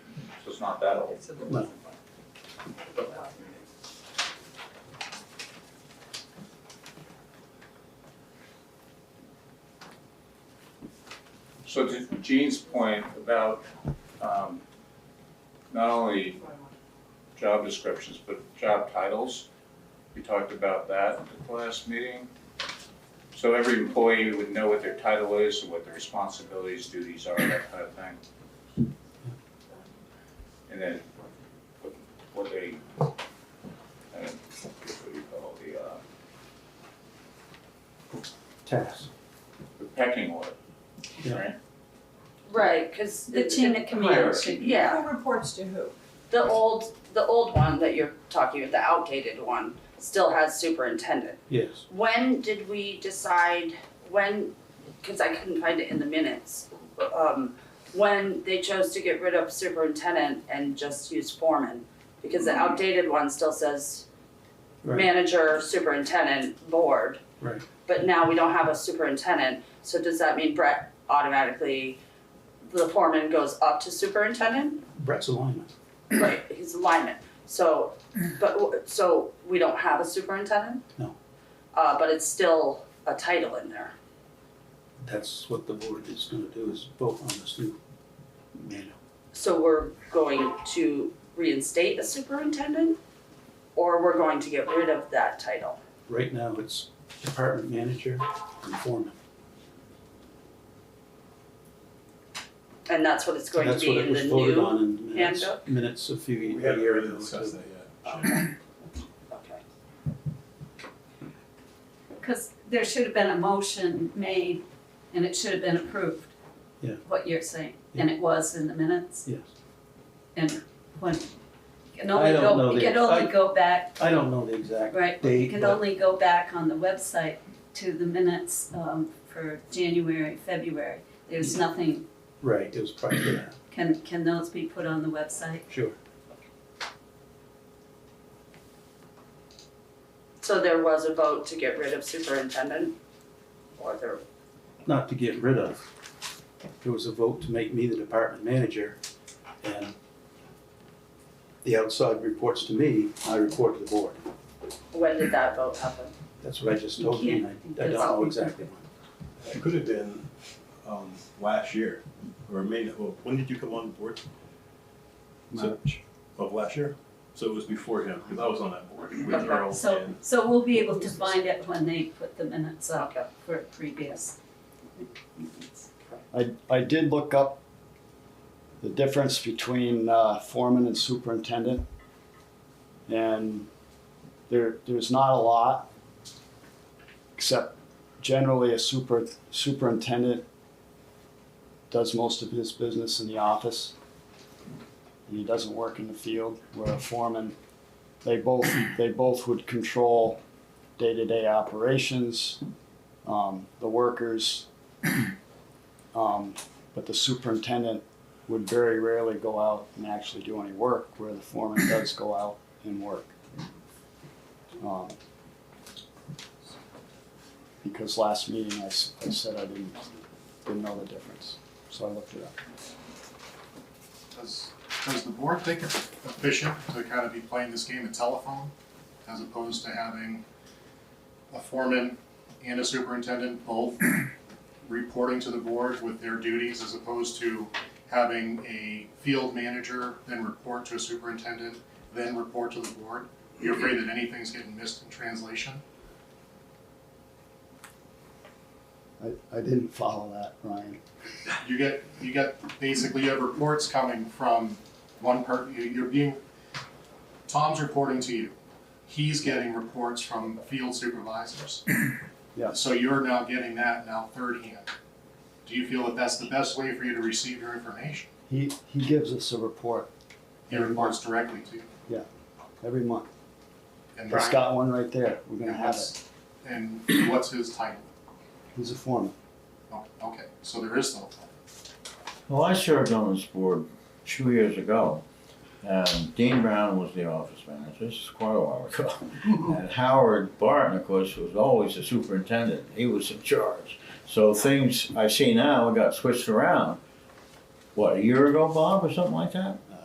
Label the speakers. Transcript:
Speaker 1: not that old.
Speaker 2: No.
Speaker 1: So to Gene's point about, um, not only job descriptions, but job titles, we talked about that at the last meeting. So every employee would know what their title is and what their responsibilities, duties are, that kind of thing. And then what- what they, uh, what do you call the, uh,
Speaker 2: Task.
Speaker 1: the pecking order,
Speaker 2: Yeah.
Speaker 1: right?
Speaker 3: Right, because the
Speaker 1: The-
Speaker 3: chain
Speaker 1: the
Speaker 3: of command,
Speaker 1: hierarchy.
Speaker 3: should- yeah,
Speaker 4: Who reports to who?
Speaker 3: the old, the old one that you're talking about, the outdated one, still has superintendent.
Speaker 2: Yes.
Speaker 3: When did we decide, when, because I couldn't find it in the minutes, um, when they chose to get rid of superintendent and just use foreman? Because the outdated one still says
Speaker 2: Mm-hmm. Right.
Speaker 3: manager, superintendent, board.
Speaker 2: Right.
Speaker 3: But now we don't have a superintendent, so does that mean Brett automatically, the foreman goes up to superintendent?
Speaker 2: Brett's alignment.
Speaker 3: Right. His alignment, so, but, w- so we don't have a superintendent?
Speaker 2: No.
Speaker 3: Uh, but it's still a title in there.
Speaker 2: That's what the board is gonna do is vote on this new manual.
Speaker 3: So we're going to reinstate a superintendent? Or we're going to get rid of that title?
Speaker 2: Right now, it's department manager and foreman.
Speaker 3: And that's what it's going to
Speaker 2: That's what
Speaker 3: be
Speaker 2: it
Speaker 3: in the
Speaker 2: was voted
Speaker 3: new?
Speaker 2: on in minutes,
Speaker 3: handbook?
Speaker 2: minutes a few,
Speaker 5: We
Speaker 2: a
Speaker 5: haven't
Speaker 2: year
Speaker 5: really
Speaker 2: ago.
Speaker 5: discussed
Speaker 2: too.
Speaker 5: that yet.
Speaker 3: Okay. Okay.
Speaker 6: Because there should have been a motion made and it should have been approved.
Speaker 2: Yeah.
Speaker 6: What you're saying, and it was in the minutes
Speaker 2: Yes.
Speaker 6: and when, you can
Speaker 2: I
Speaker 6: only
Speaker 2: don't know
Speaker 6: go, you
Speaker 2: the-
Speaker 6: can only go back,
Speaker 2: I don't know the exact
Speaker 6: right? You
Speaker 2: date,
Speaker 6: can
Speaker 2: but
Speaker 6: only go back on the website to the minutes um, for January, February. There's nothing,
Speaker 2: right, it was prior to that.
Speaker 6: can, can those be put on the website?
Speaker 2: Sure.
Speaker 3: So there was a vote to get rid of superintendent? Or there,
Speaker 2: Not to get rid of. There was a vote to make me the department manager and the outside reports to me, I report to the board.
Speaker 3: when did that vote happen?
Speaker 2: That's what I just told you, and I, I don't know exactly when.
Speaker 5: It could have been, um, last year, or maybe, well, when did you come on board? March. Of last year? So it was before him, because I was on that board with
Speaker 3: Okay,
Speaker 5: Earl
Speaker 6: So,
Speaker 5: and.
Speaker 6: so we'll be able to find it when they put the minutes up
Speaker 3: Okay.
Speaker 6: for previous.
Speaker 7: I, I did look up the difference between uh, foreman and superintendent. And there, there's not a lot, except generally a super, superintendent does most of his business in the office. And he doesn't work in the field, where a foreman, they both, they both would control day-to-day operations, um, the workers, um, but the superintendent would very rarely go out and actually do any work, where the foreman does go out and work. Um, Because last meeting, I, s- I said I didn't, didn't know the difference, so I looked it up.
Speaker 8: Does, does the board think it's efficient to kind of be playing this game of telephone as opposed to having a foreman and a superintendent both reporting to the board with their duties as opposed to having a field manager then report to a superintendent, then report to the board? You're afraid that anything's getting missed in translation?
Speaker 7: I, I didn't follow that, Ryan.
Speaker 8: you get you get basically you have reports coming from one per you- you're being Tom's reporting to you. He's getting reports from field supervisors.
Speaker 7: Yeah.
Speaker 8: So you're now getting that now third hand. Do you feel that that's the best way for you to receive your information?
Speaker 7: He, he gives us a report
Speaker 8: He reports directly to you.
Speaker 7: every month.
Speaker 8: And
Speaker 7: He's got one right there, we're gonna
Speaker 8: and
Speaker 7: have it.
Speaker 8: what's- And what's his title?
Speaker 7: He's a foreman.
Speaker 8: Oh, okay, so there is no title.
Speaker 9: Well, I served on this board two years ago, and Dean Brown was the office manager, this is quite a while ago. And Howard Barton, of course, was always the superintendent, he was in charge. So things I see now got switched around, what, a year ago, Bob, or something like that?